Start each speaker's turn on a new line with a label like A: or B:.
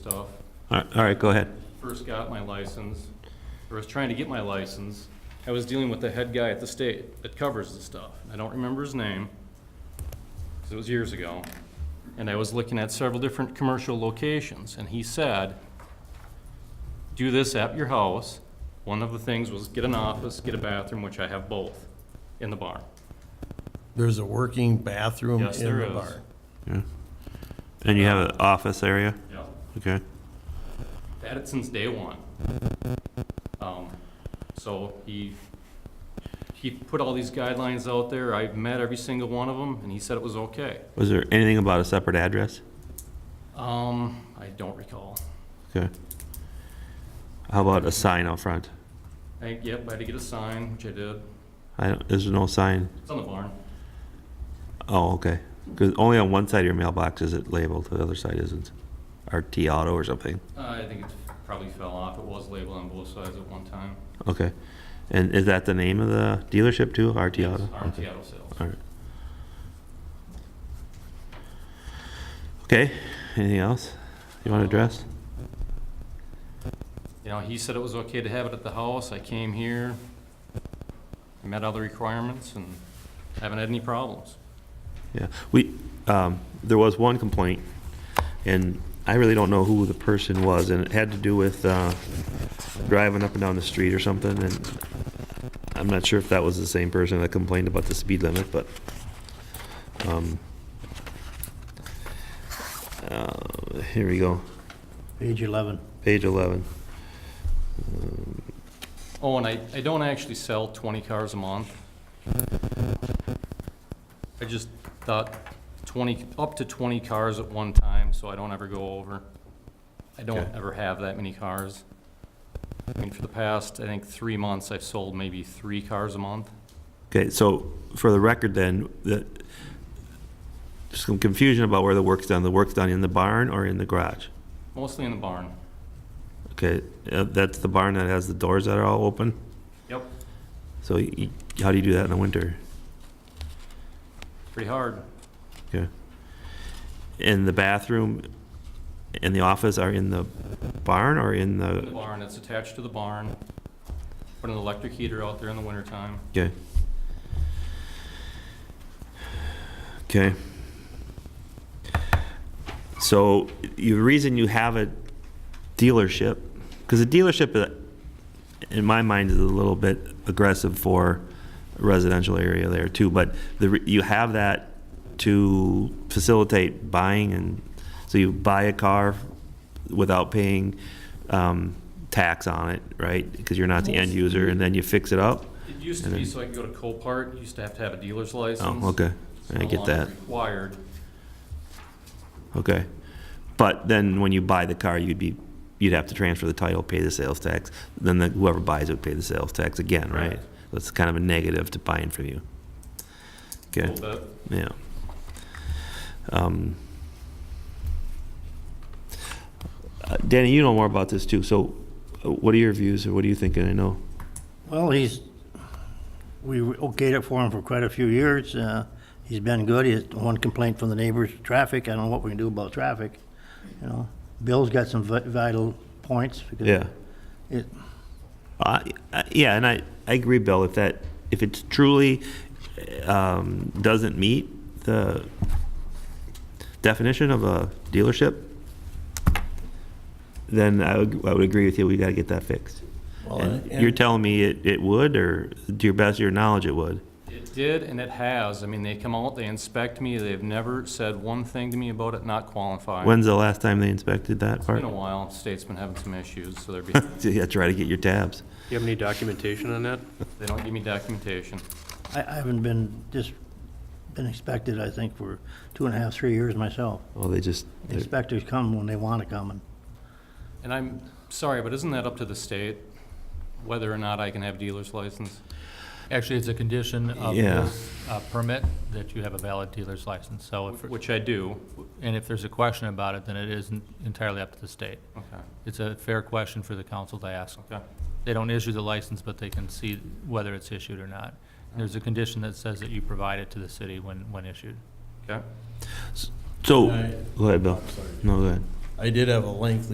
A: stuff.
B: All right- all right, go ahead.
A: First got my license, or was trying to get my license, I was dealing with the head guy at the state that covers the stuff. I don't remember his name, because it was years ago. And I was looking at several different commercial locations, and he said, do this at your house. One of the things was get an office, get a bathroom, which I have both, in the barn.
C: There's a working bathroom
A: Yes,
C: in
A: there
C: the
A: is.
C: barn.
B: Yeah. And you have an office area?
A: Yeah.
B: Okay.
A: Had it since day one. Um, so he, he put all these guidelines out there, I met every single one of them, and he said it was okay.
B: Was there anything about a separate address?
A: Um, I don't recall.
B: Okay. How about a sign out front?
A: I, yep, I had to get a sign, which I did,
B: I don't, there's no sign.
A: it's on the barn.
B: Oh, okay. Because only on one side of your mailbox is it labeled, the other side isn't. RT Auto or something.
A: Uh, I think it probably fell off, it was labeled on both sides at one time.
B: Okay. And is that the name of the dealership too? RT Auto?
A: Yes, RT
B: Okay.
A: Auto Sales.
B: All right. Okay. Anything else you want to address?
A: You know, he said it was okay to have it at the house, I came here, met all the requirements, and haven't had any problems.
B: Yeah, we, um, there was one complaint, and I really don't know who the person was, and it had to do with, uh, driving up and down the street or something, and I'm not sure if that was the same person that complained about the speed limit, but, um, uh, here we go,
C: Page 11.
B: page eleven. Um,
A: Oh, and I, I don't actually sell twenty cars a month. I just thought twenty, up to twenty cars at one time, so I don't ever go over. I don't
B: Okay.
A: ever have that many cars. I mean, for the past, I think, three months, I've sold maybe three cars a month.
B: Okay, so for the record then, the, there's some confusion about where the work's done, the work's done in the barn or in the garage?
A: Mostly in the barn.
B: Okay, uh, that's the barn that has the doors that are all open?
A: Yep.
B: So y y- how do you do that in the winter?
A: Pretty hard.
B: Okay. And the bathroom and the office are in the barn or in
A: In the
B: the,
A: barn, it's attached to the barn. Put an electric heater out there in the wintertime.
B: okay. Okay. So the reason you have a dealership, because a dealership, uh, in my mind, is a little bit aggressive for a residential area there too, but the, re- you have that to facilitate buying and, so you buy a car without paying um, tax on it, right? Because you're not the end user, and then you fix it up?
A: It used to
B: And
A: be
B: then-
A: so I could go to Copart, you used to have to have a dealer's license.
B: Oh, okay,
A: It's
B: I
A: no
B: get
A: longer
B: that,
A: Required.
B: okay. But then when you buy the car, you'd be, you'd have to transfer the title, pay the sales tax, then the- whoever buys it would pay the sales tax again, right?
A: Correct.
B: That's kind of a negative to buying from you. Okay,
A: Little bit.
B: yeah. Um, uh, Danny, you know more about this too, so uh, what are your views, or what are you thinking, I know?
D: Well, he's, we okayed it for him for quite a few years. Uh, He's been good. He had one complaint from the neighbors, traffic. I don't know what we can do about traffic, you know. Bill's got some vi- vital points. because
B: Yeah.
D: it-
B: Uh, I- Yeah, and I, I agree, Bill, if that, if it truly um, doesn't meet the definition of a dealership, then I would, I would agree with you, we gotta get that fixed.
C: Well,
B: And
C: and-
B: you're telling me it, it would, or to your best of your knowledge, it would?
A: It did and it has. I mean, they come out, they inspect me, they've never said one thing to me about it not qualifying.
B: When's the last time they inspected that
A: It's
B: part?
A: been a while, state's been having some issues, so they're, behind.
B: Yeah, try to get your tabs.
E: Do you have any documentation on that?
A: they don't give me documentation.
D: I I haven't been, just been inspected, I think, for two and a half, three years myself.
B: Well, they just, they're-
D: Inspectors come when they want to come, and
A: And I'm sorry, but isn't that up to the state, whether or not I can have dealer's license?
F: Actually, it's a condition of
B: Yeah.
F: this uh, permit that you have a valid dealer's license, so, if-
A: Which I do.
F: and if there's a question about it, then it isn't entirely up to the state.
A: Okay,
F: It's a fair question for the council to ask.
A: okay.
F: They don't issue the license, but they can see whether it's issued or not. There's a condition that says that you provide it to the city when, when issued.
A: Okay.
B: so,
C: I-
B: go ahead, Bill.
C: I'm sorry.
B: No, go ahead.
C: I did have a lengthy